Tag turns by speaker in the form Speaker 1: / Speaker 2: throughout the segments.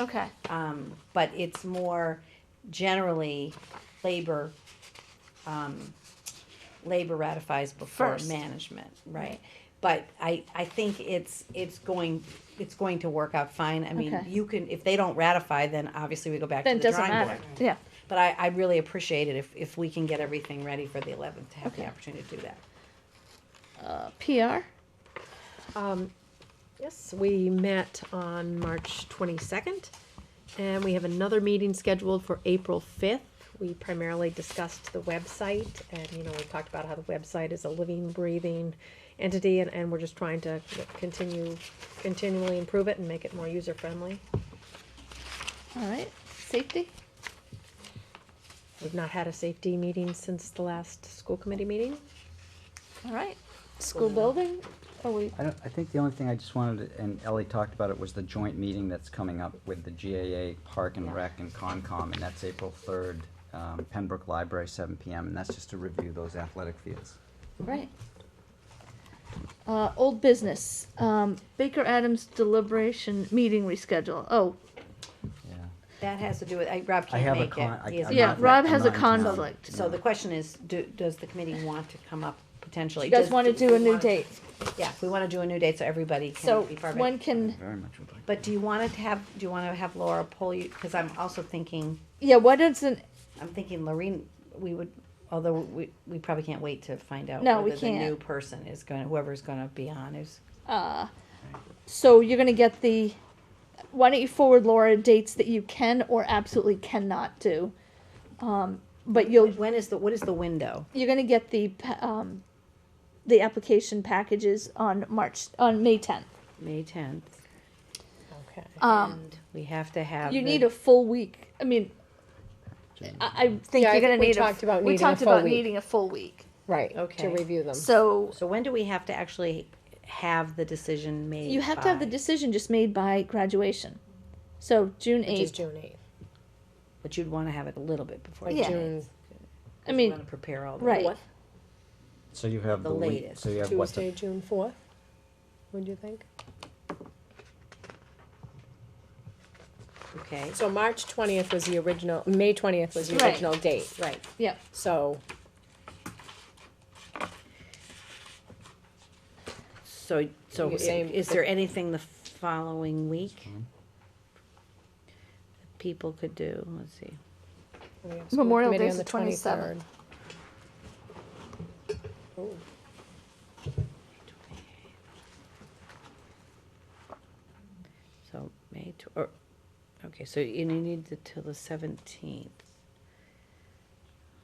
Speaker 1: Okay.
Speaker 2: Um, but it's more generally labor, um, labor ratifies before
Speaker 1: First.
Speaker 2: management, right? But I, I think it's, it's going, it's going to work out fine. I mean,
Speaker 1: Okay.
Speaker 2: you can, if they don't ratify, then obviously we go back to
Speaker 1: Then
Speaker 2: the
Speaker 1: it doesn't
Speaker 2: drawing
Speaker 1: matter.
Speaker 2: board.
Speaker 1: Yeah.
Speaker 2: But I, I really appreciate it if, if we can get everything ready for the eleventh, to have the
Speaker 1: Okay.
Speaker 2: opportunity to do that.
Speaker 1: Uh, PR.
Speaker 3: Yes, we met on March 22nd, and we have another meeting scheduled for April 5th. We primarily discussed the website, and, you know, we talked about how the website is a living, breathing entity, and, and we're just trying to continue, continually improve it and make it more user-friendly.
Speaker 1: All right. Safety.
Speaker 3: We've not had a safety meeting since the last school committee meeting.
Speaker 1: All right. School building. Are we?
Speaker 4: I don't, I think the only thing I just wanted, to- and Ellie talked about it, was the joint meeting that's coming up with the GAA Park and Rec and Concom, and that's April third, um, Pembroke Library, seven PM, and that's just to review those athletic fields.
Speaker 1: Right. Uh, old business. Um, Baker Adams deliberation meeting reschedule. Oh,
Speaker 4: Yeah.
Speaker 2: That has to do with, I, Rob
Speaker 4: I
Speaker 2: can't
Speaker 4: have a
Speaker 2: make it.
Speaker 4: con, I,
Speaker 2: He is
Speaker 4: I'm
Speaker 1: Yeah,
Speaker 4: not-
Speaker 1: Rob
Speaker 4: I'm
Speaker 1: has
Speaker 4: not
Speaker 1: a
Speaker 4: in town.
Speaker 1: conflict.
Speaker 2: So the question is, do, does the committee want to come up potentially?
Speaker 1: you guys
Speaker 2: Does-
Speaker 1: want to do a
Speaker 2: we
Speaker 1: new
Speaker 2: wanna-
Speaker 1: date?
Speaker 2: Yeah, we wanna do a new date so everybody can
Speaker 1: So
Speaker 2: be part of
Speaker 1: when
Speaker 2: it.
Speaker 1: can?
Speaker 4: Very much would like.
Speaker 2: But do you wanna have, do you wanna have Laura pull you, cause I'm also thinking,
Speaker 1: Yeah. What is an?
Speaker 2: I'm thinking Lorraine, we would, although we, we probably can't wait to find out.
Speaker 1: No, we
Speaker 2: whether The new
Speaker 1: can't.
Speaker 2: person is gonna, whoever's gonna be on is,
Speaker 1: Uh, so you're gonna get the. Why don't you forward Laura dates that you can or absolutely cannot do? Um, but you'll
Speaker 2: when is the, what is the window?
Speaker 1: you're gonna get the pa- um, the application packages on March on May 10th.
Speaker 2: May tenth.
Speaker 3: Okay.
Speaker 1: Um,
Speaker 2: We have to have.
Speaker 1: you
Speaker 2: the-
Speaker 1: need a full week. I mean, I, I think
Speaker 5: Yeah, I
Speaker 1: you're gonna
Speaker 5: think we
Speaker 1: need. a
Speaker 5: talked about
Speaker 1: we
Speaker 5: needing a
Speaker 1: talked
Speaker 5: full
Speaker 1: about
Speaker 5: week.
Speaker 1: needing a full week.
Speaker 5: Right,
Speaker 2: Okay.
Speaker 5: to review them.
Speaker 1: So
Speaker 2: So when do we have to actually have the decision made?
Speaker 1: you have to have the
Speaker 2: by?
Speaker 1: decision just made by graduation. So June
Speaker 5: Which is
Speaker 1: eighth.
Speaker 5: June eighth,
Speaker 2: But you'd wanna have it a little bit before.
Speaker 5: like
Speaker 1: Yeah.
Speaker 5: June,
Speaker 1: I
Speaker 2: You
Speaker 1: mean,
Speaker 2: wanna prepare all the.
Speaker 1: right.
Speaker 5: What?
Speaker 4: So you have
Speaker 2: The
Speaker 4: the week,
Speaker 2: latest.
Speaker 4: so you have what,
Speaker 5: Tuesday,
Speaker 4: the,
Speaker 5: June fourth, would you think?
Speaker 2: Okay,
Speaker 5: So March twentieth was the original, May twentieth was the
Speaker 1: Right.
Speaker 5: original date,
Speaker 2: right.
Speaker 1: Yeah.
Speaker 5: so
Speaker 2: So, so
Speaker 5: You're
Speaker 2: i-
Speaker 5: saying-
Speaker 2: is there anything the following week? that People could do, let's see.
Speaker 5: we have school
Speaker 1: Memorial
Speaker 5: committee
Speaker 1: Day's
Speaker 5: on
Speaker 1: the 27th.
Speaker 5: 23rd. Ooh,
Speaker 2: So May tw- or, okay, so you you need to till the seventeenth.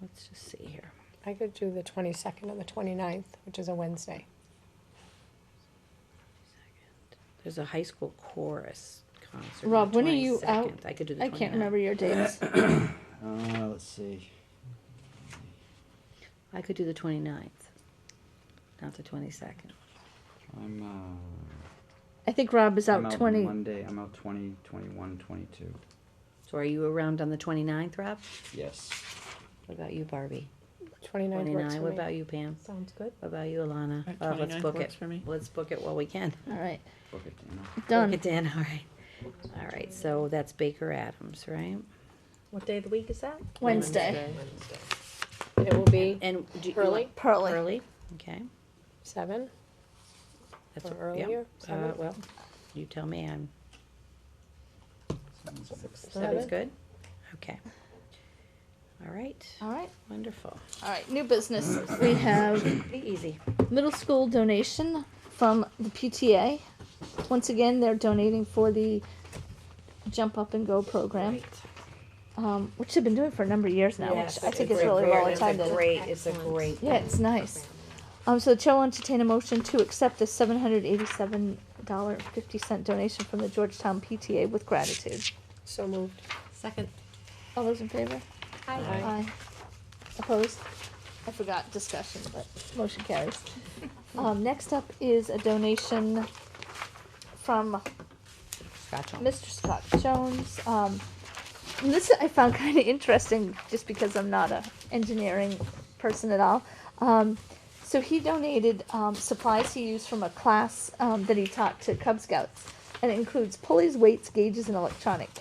Speaker 2: Let's just see here.
Speaker 5: I could do the twenty-second and the 29th, which is a Wednesday.
Speaker 2: There's a high school chorus concert. on
Speaker 1: Rob,
Speaker 2: the
Speaker 1: when are you out?
Speaker 2: 22nd. I could do the
Speaker 1: I
Speaker 2: 29th.
Speaker 1: can't remember your dates.
Speaker 4: uh, let's see,
Speaker 2: I could do the 29th, not the twenty-second.
Speaker 4: I'm,
Speaker 1: I think Rob is
Speaker 4: uh,
Speaker 1: out twenty.
Speaker 4: Monday, I'm out twenty, twenty-one, twenty-two,
Speaker 2: So are you around on the 29th, Rob?
Speaker 4: yes.
Speaker 2: What about you, Barbie?
Speaker 5: 29th works
Speaker 2: Twenty-nine,
Speaker 5: for
Speaker 2: what
Speaker 5: me.
Speaker 2: about you, Pam?
Speaker 3: Sounds good.
Speaker 2: What about you, Alana?
Speaker 6: Uh,
Speaker 2: Uh, let's
Speaker 6: 29th
Speaker 2: book
Speaker 6: works
Speaker 2: it.
Speaker 6: for me.
Speaker 2: Let's book it while we can.
Speaker 1: All right,
Speaker 4: Book it, Dana.
Speaker 1: done.
Speaker 2: Book it in, all right. All right, so that's Baker Adams, right?
Speaker 3: What day of the week is that?
Speaker 1: Wednesday.
Speaker 5: It will be
Speaker 2: And do you?
Speaker 5: Pearly?
Speaker 1: Pearly.
Speaker 2: Early, okay.
Speaker 5: seven
Speaker 2: That's
Speaker 5: or
Speaker 2: yeah.
Speaker 5: earlier,
Speaker 2: Uh,
Speaker 5: seven,
Speaker 2: well, you tell me, I'm, seven's
Speaker 5: seven.
Speaker 2: good? Okay. All right,
Speaker 1: All right.
Speaker 2: wonderful.
Speaker 1: All right. New business. We have
Speaker 2: Be easy.
Speaker 1: middle school donation from the PTA. Once again, they're donating for the Jump Up and Go program,
Speaker 2: Right.
Speaker 1: um, which they've been doing for a number of years now,
Speaker 2: Yes,
Speaker 1: which I think is
Speaker 2: a
Speaker 1: really
Speaker 2: great-
Speaker 1: well
Speaker 2: it's a
Speaker 1: attended.
Speaker 2: Great, it's a great.
Speaker 1: Yeah, it's nice. Um, so the chair will entertain a motion to accept the seven hundred eighty-seven dollar fifty cent donation from the Georgetown PTA with gratitude.
Speaker 5: So moved.
Speaker 3: Second.
Speaker 1: All those in favor?
Speaker 5: Aye.
Speaker 1: Aye. Opposed? I forgot discussion, but motion carries. Um, next up is a donation from
Speaker 2: Scotch on.
Speaker 1: Mr. Scott Jones. Um, and this I found kind of interesting just because I'm not a engineering person at all. Um, so he donated um, supplies he used from a class um, that he taught to Cub Scouts, and it includes pulleys, weights, gauges, and electronic